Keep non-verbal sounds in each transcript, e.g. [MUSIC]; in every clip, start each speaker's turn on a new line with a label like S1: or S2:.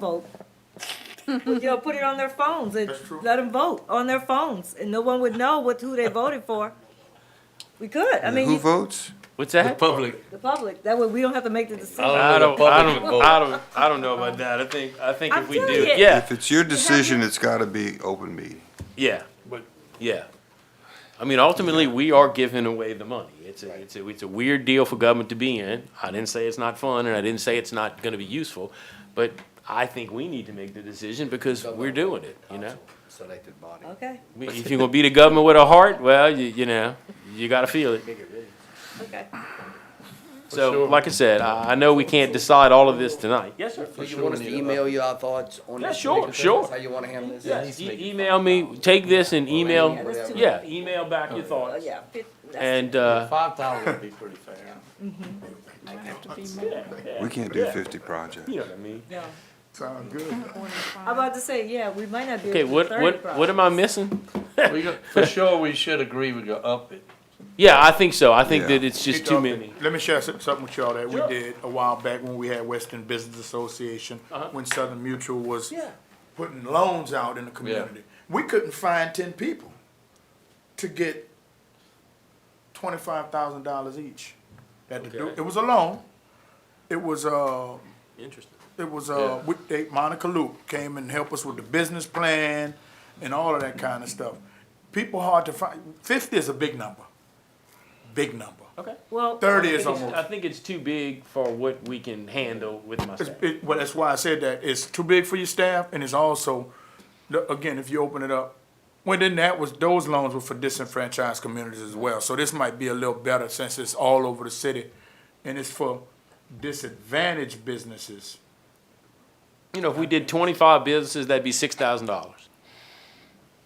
S1: vote. You know, put it on their phones and
S2: That's true.
S1: let them vote on their phones, and no one would know what, who they voted for. We could, I mean,
S2: Who
S1: you-
S2: votes?
S3: What's
S4: The
S3: that?
S4: public.
S1: the public, that way we don't have to make the decision.
S4: Oh.
S3: I don't, I don't,
S4: Republican
S3: I don't, I don't know about that. I think, I think
S1: I'm
S3: if we do,
S1: telling you.
S3: yeah,
S2: If it's your decision, it's gotta be open meeting.
S3: yeah,
S4: But
S3: yeah. I mean, ultimately, we are giving away the money. It's a, it's a, it's a weird deal for government to be in. I didn't say it's not fun, and I didn't say it's not gonna be useful, but I think we need to make the decision because we're doing it, you know?
S5: Selected body.
S1: Okay,
S3: I mean, If you're gonna be the government with a heart, well, you, you know, you gotta feel it.
S1: okay.
S3: So,
S4: sure.
S3: like I said, I, I know we can't decide all of this tonight. Yes, sir.
S5: Do you want us to email you our thoughts on
S3: Yeah,
S5: this?
S3: sure,
S5: particular thing?
S3: sure.
S5: That's How you wanna handle this?
S3: Yes, e- email me, take this and
S1: Yeah,
S3: email,
S1: that's too
S3: yeah, email back your
S1: Oh,
S3: thoughts.
S1: yeah, fit- that's-
S3: And, uh,
S4: five thousand would be pretty [LAUGHS] fair.
S2: We can't do
S3: Yeah.
S2: fifty projects.
S3: you know what I mean?
S1: no.
S6: Sound good.
S1: I'm about to say, yeah, we might not be
S3: Okay,
S1: able to do
S3: what,
S1: thirty
S3: what, what am I missing?
S4: We go- For sure, we should agree we go up it.
S3: Yeah, I think so. I think
S2: Yeah.
S3: that it's just
S6: Hey,
S3: too
S6: Doc,
S3: many.
S6: Let me share some- something with y'all that we
S3: Sure.
S6: did a while back when we had Western Business Association,
S3: Uh-huh.
S6: when Southern Mutual was putting loans out in the community. We couldn't find ten people to get twenty-five thousand dollars each. Had to do,
S3: Okay.
S6: it was a loan. It was, uh,
S3: Interesting.
S6: it was,
S4: Yeah.
S6: uh, we, they, Monica Luke came and helped us with the business plan and all of that kind of stuff. People hard to find, fifty is a big number, big number.
S3: Okay.
S1: Well.
S6: Thirty
S3: I
S6: is
S3: think it's-
S6: almost.
S3: I think it's too big for what we can handle with my
S6: It's,
S3: staff.
S6: it, well, that's why I said that. It's too big for your staff, and it's also, the- again, if you open it up, well, then that was, those loans were for disenfranchised communities as well. So this might be a little better since it's all over the city, and it's for disadvantaged businesses.
S3: You know, if we did twenty-five businesses, that'd be six thousand dollars.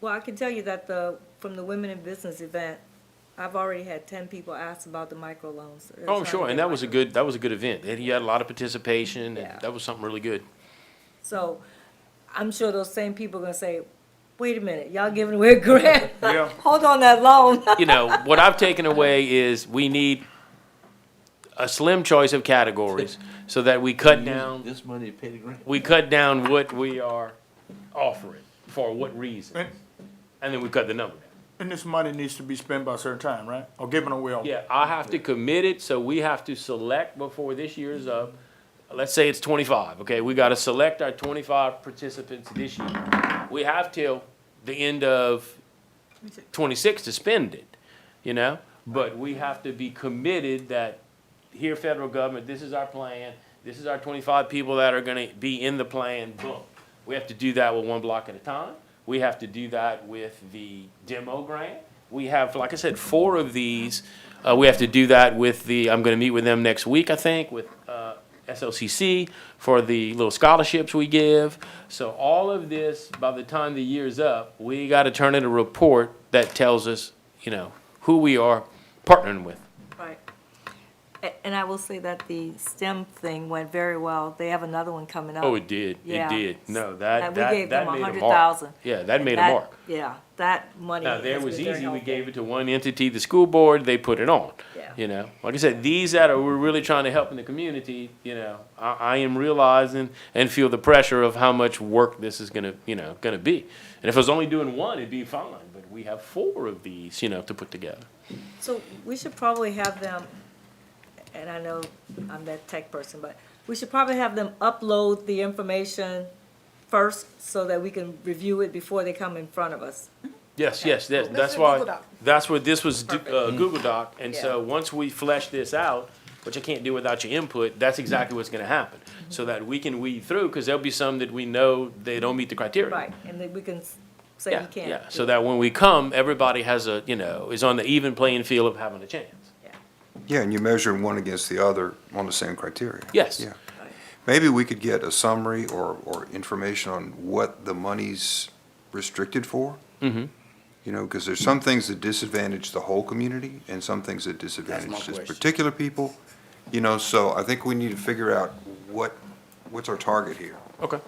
S1: Well, I can tell you that the, from the Women in Business event, I've already had ten people ask about the microloans. They're
S3: Oh,
S1: trying to
S3: sure, and
S1: get
S3: that was a
S1: microloans.
S3: good, that was a good event. And you had a lot of participation,
S1: Yeah.
S3: and that was something really good.
S1: So I'm sure those same people are gonna say, wait a minute, y'all giving away a
S3: [LAUGHS]
S1: grant?
S6: Yeah.
S1: [LAUGHS] Hold on that loan. [LAUGHS]
S3: you know, what I've taken away is we need a slim choice of [LAUGHS] categories so that we cut down,
S4: This money to pay the grant.
S3: we cut down what we are offering, for what reason.
S6: And,
S3: And then we cut the number down.
S6: and this money needs to be spent by a certain time, right? Or given away. on-
S3: Yeah, I have to commit it, so we have to select before this year's up. Let's say it's twenty-five, okay? We gotta select our twenty-five participants this year. We have till the end of twenty-six to spend it, you know? But we have to be committed that here, federal government, this is our plan, this is our twenty-five people that are gonna be in the plan, boom. We have to do that with one block at a time, we have to do that with the demo grant. We have, like I said, four of these, uh, we have to do that with the, I'm gonna meet with them next week, I think, with, uh, SLCC for the little scholarships we give. So all of this, by the time the year's up, we gotta turn in a report that tells us, you know, who we are partnering with.
S1: Right. A- And I will say that the STEM thing went very well. They have another one coming up.
S3: Oh, it did.
S1: Um, Yeah.
S3: It did. No,
S1: And
S3: that
S1: we
S3: that
S1: gave
S3: that
S1: them
S3: made a mark.
S1: 100,000.
S3: Yeah, that made
S1: That-
S3: a mark.
S1: Yeah, that money.
S3: Now there
S1: has
S3: was
S1: been very
S3: easy. We
S1: helpful.
S3: gave it to one entity, the school board. They put it on.
S1: Yeah.
S3: You know, like I said, these that are we're really trying to help in the community. You know, I, I am realizing and feel the pressure of how much work this is gonna you know gonna be. And if I was only doing one, it'd be fine. But we have four of these, you know, to put together.
S1: So we should probably have them, and I know I'm that tech person, but we should probably have them upload the information first so that we can review it before they come in front of us.
S3: Yes, yes, that,
S7: This
S3: that's
S7: is Google
S3: why,
S7: Doc.
S3: that's what this was, d- uh, Google Doc, and so
S1: Yeah.
S3: once we flesh this out, which I can't do without your input, that's exactly what's gonna happen.
S1: Mm-hmm.
S3: So that we can weed through, cause there'll be some that we know they don't meet the criteria.
S1: Right, and then we can s- say
S3: Yeah,
S1: you can't.
S3: yeah, so that when we come, everybody has a, you know, is on the even playing field of having a chance.
S2: Yeah, and you're measuring one against the other on the same criteria.
S3: Yes.
S2: Yeah. Maybe we could get a summary or, or information on what the money's restricted for.
S3: Mhm.
S2: You know, because there's some things that disadvantage the whole community and some things that disadvantage just particular people. You know, so I think we need to figure out what, what's our target here?
S3: Okay.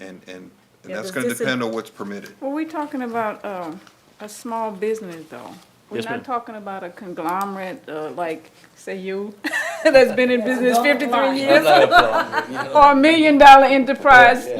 S2: And, and, and
S1: Yeah,
S2: that's
S1: the
S2: gonna
S1: disa-
S2: depend on what's permitted.
S7: Well, we're talking about um, a small business, though. We're
S3: Yes, ma'am.
S7: not talking about a conglomerate, uh, like, say you, [LAUGHS] that's been in business fifty-three years,
S4: Not a problem, you know.
S7: or a million-dollar enterprise,